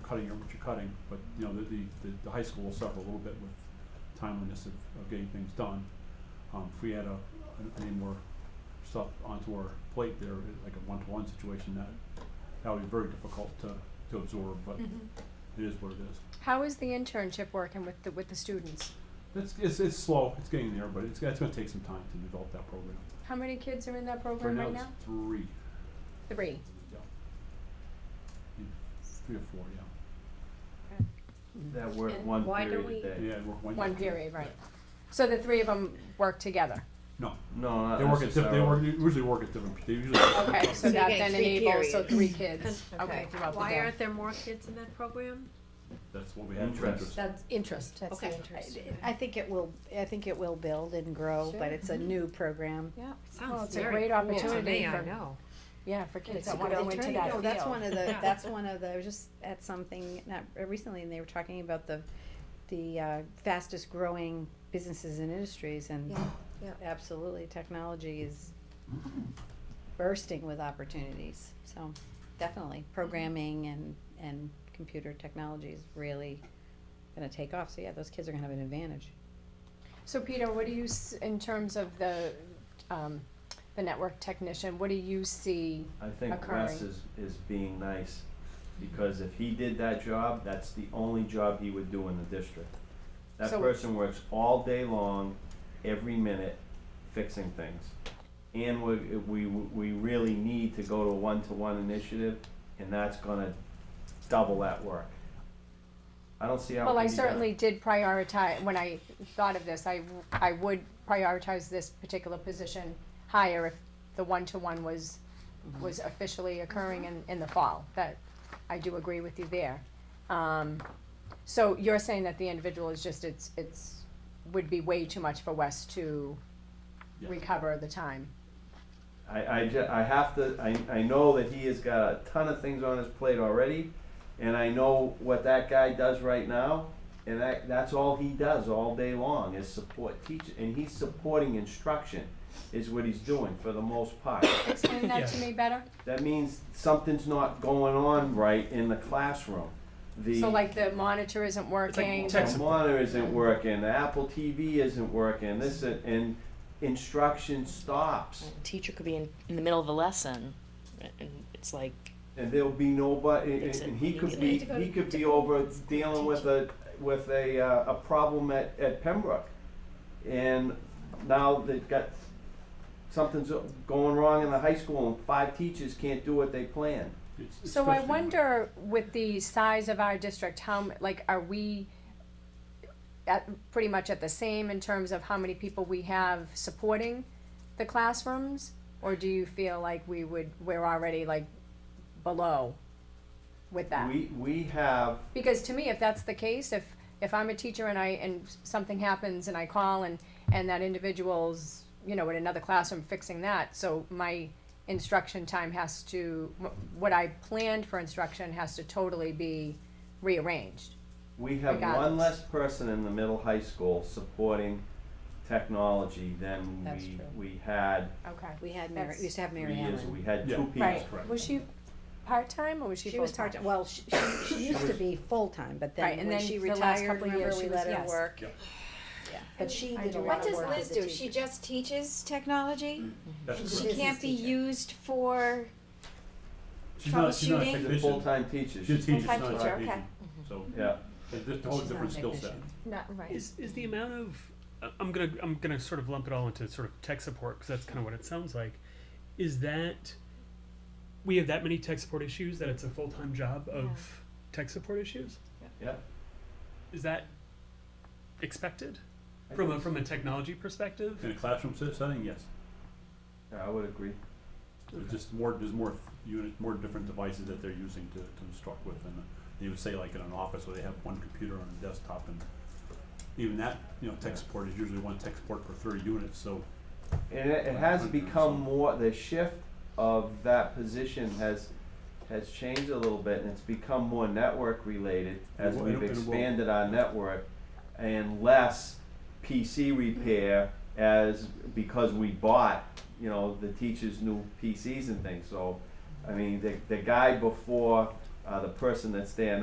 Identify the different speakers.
Speaker 1: cutting or what you're cutting, but, you know, the, the, the- the high school will suffer a little bit with timeliness of, of getting things done. Um, if we had a, any more stuff onto our plate there, it- like a one-to-one situation, that, that would be very difficult to, to absorb, but
Speaker 2: Mhm.
Speaker 1: it is what it is.
Speaker 2: How is the internship working with the, with the students?
Speaker 1: It's, it's, it's slow, it's getting there, but it's, it's gonna take some time to develop that program.
Speaker 2: How many kids are in that
Speaker 1: Right
Speaker 2: program
Speaker 1: now,
Speaker 2: right
Speaker 1: it's
Speaker 2: now?
Speaker 1: three,
Speaker 2: Three.
Speaker 1: yeah. Three or four, yeah.
Speaker 3: That were
Speaker 4: And
Speaker 3: one
Speaker 4: why
Speaker 3: period
Speaker 4: don't
Speaker 3: a day.
Speaker 1: Yeah, we're one.
Speaker 2: One period, right. So the three of them work together.
Speaker 1: No,
Speaker 3: No, not
Speaker 1: They work at, diff- they
Speaker 3: necessarily.
Speaker 1: work, they usually work at different, they usually.
Speaker 2: Okay, so
Speaker 4: you're
Speaker 2: that
Speaker 4: getting
Speaker 2: then
Speaker 4: three
Speaker 2: enables, so
Speaker 4: periods.
Speaker 2: three kids, okay, throughout the
Speaker 5: Why
Speaker 2: day.
Speaker 5: aren't there more kids in that program?
Speaker 1: That's what we have for
Speaker 3: Interest.
Speaker 1: interest.
Speaker 4: That's
Speaker 6: interest.
Speaker 4: that's the
Speaker 5: Okay.
Speaker 4: interest.
Speaker 6: I I think it will, I think it will build and grow,
Speaker 2: Sure. mm-hmm.
Speaker 6: but it's a new program.
Speaker 2: Yeah, well,
Speaker 5: Sounds
Speaker 2: it's a
Speaker 5: very
Speaker 2: great
Speaker 5: cool to
Speaker 2: opportunity
Speaker 5: me, I
Speaker 2: for-
Speaker 5: know.
Speaker 2: yeah, for kids
Speaker 6: It's a
Speaker 2: that
Speaker 6: good
Speaker 2: wanna go into that
Speaker 6: opportunity.
Speaker 2: field.
Speaker 6: No, that's one of the,
Speaker 5: Yeah.
Speaker 6: that's one of the, I was just at something, not uh, recently, and they were talking about the, the uh, fastest growing businesses and industries and
Speaker 4: Yeah, yeah.
Speaker 6: absolutely, technology is bursting with opportunities, so definitely,
Speaker 2: Mm-hmm.
Speaker 6: programming and, and computer technology is really gonna take off, so yeah, those kids are gonna have an advantage.
Speaker 2: So Peter, what do you, s- in terms of the, um, the network technician, what do you see?
Speaker 3: I think
Speaker 2: occurring.
Speaker 3: Wes is, is being nice, because if he did that job, that's the only job he would do in the district. That
Speaker 2: So-
Speaker 3: person works all day long, every minute, fixing things. And we, we, we really need to go to a one-to-one initiative, and that's gonna double that work. I don't see how it
Speaker 2: Well, I
Speaker 3: can be done.
Speaker 2: certainly did prioritize, when I thought of this, I, w- I would prioritize this particular position higher if the one-to-one was, was officially occurring in, in the fall, that, I do agree with you there. Um, so you're saying that the individual is just, it's, it's, would be way too much for Wes to
Speaker 1: Yeah.
Speaker 2: recover the time.
Speaker 3: I, I, ju- I have to, I, I know that he has got a ton of things on his plate already, and I know what that guy does right now, and that, that's all he does all day long is support teachers, and he's supporting instruction is what he's doing for the most part.
Speaker 2: Explain that to me better?
Speaker 3: That means something's not going on right in the classroom. The
Speaker 2: So like the monitor isn't working?
Speaker 3: the monitor isn't working, the Apple TV isn't working, this, and- and instruction stops.
Speaker 7: teacher could be in, in the middle of a lesson and it's like
Speaker 3: and there'll be nobody, and,
Speaker 7: It's a-
Speaker 3: and he could
Speaker 7: you
Speaker 3: be,
Speaker 7: need
Speaker 4: to go
Speaker 3: he
Speaker 4: to-
Speaker 3: could be
Speaker 4: to-
Speaker 3: over dealing with a, with a, uh, a problem at, at Pembroke. And now they've got, something's going wrong in the high school and five teachers can't do what they planned.
Speaker 1: It's- it's
Speaker 2: So I
Speaker 1: frustrating.
Speaker 2: wonder with the size of our district, how, m- like, are we at, pretty much at the same in terms of how many people we have supporting the classrooms? Or do you feel like we would, we're already like below with that?
Speaker 3: We, we have,
Speaker 2: Because to me, if that's the case, if, if I'm a teacher and I, and something happens and I call and, and that individual's, you know, in another classroom fixing that, so my instruction time has to, wh- what I planned for instruction has to totally be rearranged.
Speaker 3: we have one
Speaker 2: Regardless.
Speaker 3: less person in the middle high school supporting technology than
Speaker 6: That's
Speaker 3: we,
Speaker 6: true.
Speaker 3: we had
Speaker 2: Okay.
Speaker 6: We had Mary,
Speaker 2: That's-
Speaker 6: we used to have Mary
Speaker 3: three
Speaker 6: Ellen.
Speaker 3: years, ago. we had
Speaker 1: Yeah.
Speaker 3: two people.
Speaker 2: Right,
Speaker 1: correct.
Speaker 2: was she part-time or was she
Speaker 6: She was
Speaker 2: full-time?
Speaker 6: part-time, well, she, she, she used to be full-time, but
Speaker 2: Right,
Speaker 6: then
Speaker 2: and
Speaker 6: when
Speaker 2: then
Speaker 6: she
Speaker 2: the last
Speaker 6: retired,
Speaker 2: couple of
Speaker 6: remember,
Speaker 2: years
Speaker 6: we
Speaker 2: she was-
Speaker 6: let her
Speaker 2: yes.
Speaker 6: work.
Speaker 1: Yeah.
Speaker 6: Yeah, but she
Speaker 2: I
Speaker 6: did
Speaker 2: do
Speaker 6: a lot
Speaker 4: What
Speaker 6: of
Speaker 4: does
Speaker 6: work
Speaker 4: Liz
Speaker 6: as a
Speaker 4: do?
Speaker 6: teacher.
Speaker 4: She just teaches technology?
Speaker 1: That's
Speaker 6: She's
Speaker 1: correct.
Speaker 4: She
Speaker 6: Business
Speaker 4: can't be
Speaker 6: teacher.
Speaker 4: used for,
Speaker 1: She's not, she's not a
Speaker 4: troubleshooting.
Speaker 3: She's a
Speaker 1: technician,
Speaker 3: full-time teacher,
Speaker 1: she's a teacher, she's
Speaker 4: full-time
Speaker 1: not a
Speaker 4: teacher,
Speaker 1: technician, so,
Speaker 3: yeah.
Speaker 1: it's just a whole
Speaker 6: She's not a
Speaker 1: different skill set.
Speaker 6: technician.
Speaker 4: not, right.
Speaker 8: Is is the amount of I- I'm gonna I'm gonna sort of lump it all into sort of tech support because that's kind of what it sounds like. Is that we have that many tech support issues that it's a full time job of tech support issues?
Speaker 3: Yeah.
Speaker 8: Is that expected
Speaker 3: I
Speaker 8: from a
Speaker 3: think
Speaker 8: from a
Speaker 3: so.
Speaker 8: technology perspective?
Speaker 1: In a classroom se- setting, yes,
Speaker 3: Yeah, I would agree.
Speaker 1: there's just more, there's more unit, more different devices that they're using to, to instruct with, and you would say like in an office where they have one computer on a desktop, and even that, you know, tech
Speaker 3: Yeah.
Speaker 1: support is usually one tech support per thirty units, so
Speaker 3: And it, it has become more, the shift of that position has, has changed a little bit, and it's become more network related as
Speaker 1: It will- it
Speaker 3: we've
Speaker 1: will- it will.
Speaker 3: expanded our network, and less PC repair as, because we bought, you know, the teachers' new PCs and things, so, I mean, the, the guy before, uh, the person that's there